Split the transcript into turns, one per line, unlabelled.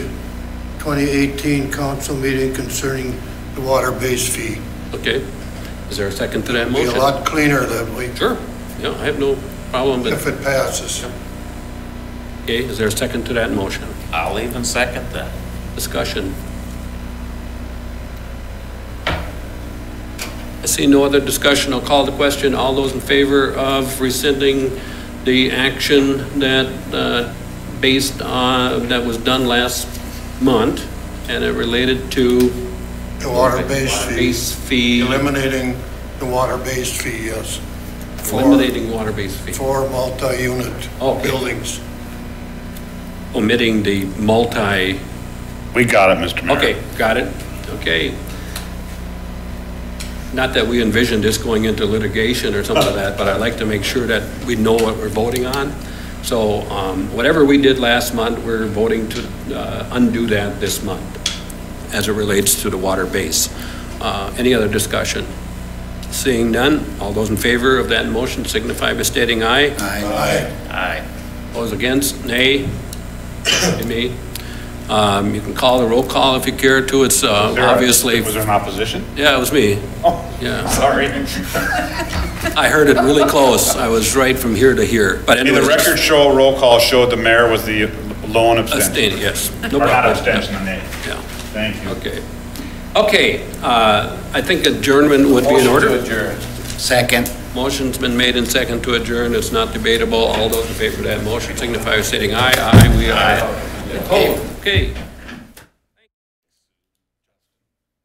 2018 council meeting concerning the water base fee.
Okay. Is there a second to that
Be a
motion?
lot cleaner that way
Sure. Yeah, I have no problem, but,
if it passes.
okay, is there a second to that motion?
I'll even second that.
Discussion. I see no other discussion. I'll call the question. All those in favor of rescinding the action that, uh, based on, that was done last month, and it related to
The water base fee,
base fee,
eliminating the water base fee, yes. For,
eliminating water base fee,
for multi-unit
Okay.
buildings.
omitting the multi,
We got it, Mr. Mayor.
Okay, got it. Okay. Not that we envision this going into litigation or something like that, but I'd like to make sure that we know what we're voting on. So um, whatever we did last month, we're voting to uh, undo that this month as it relates to the water base. Uh, Any other discussion? Seeing none, all those in favor of that motion signify by stating aye.
Aye.
Aye.
Those against, nay. Nay, Nay. Um, You can call the roll call if you care to. It's uh,
Was there a-
obviously,
Was there an opposition?
yeah, it was me.
Oh,
Yeah,
sorry.
I heard it really close. I was right from here to here. But
In the
anyways,
record show, roll call showed the mayor was the lone abstention.
abstain, yes. No
Or not
problem.
abstention, a nay.
Yeah,
Thank you.
okay. Okay, uh, I think adjournment would be in order.
Second.
Motion's been made and second to adjourn. It's not debatable. All those in favor of that motion signify by stating aye. Aye, we are. Opposed? Okay.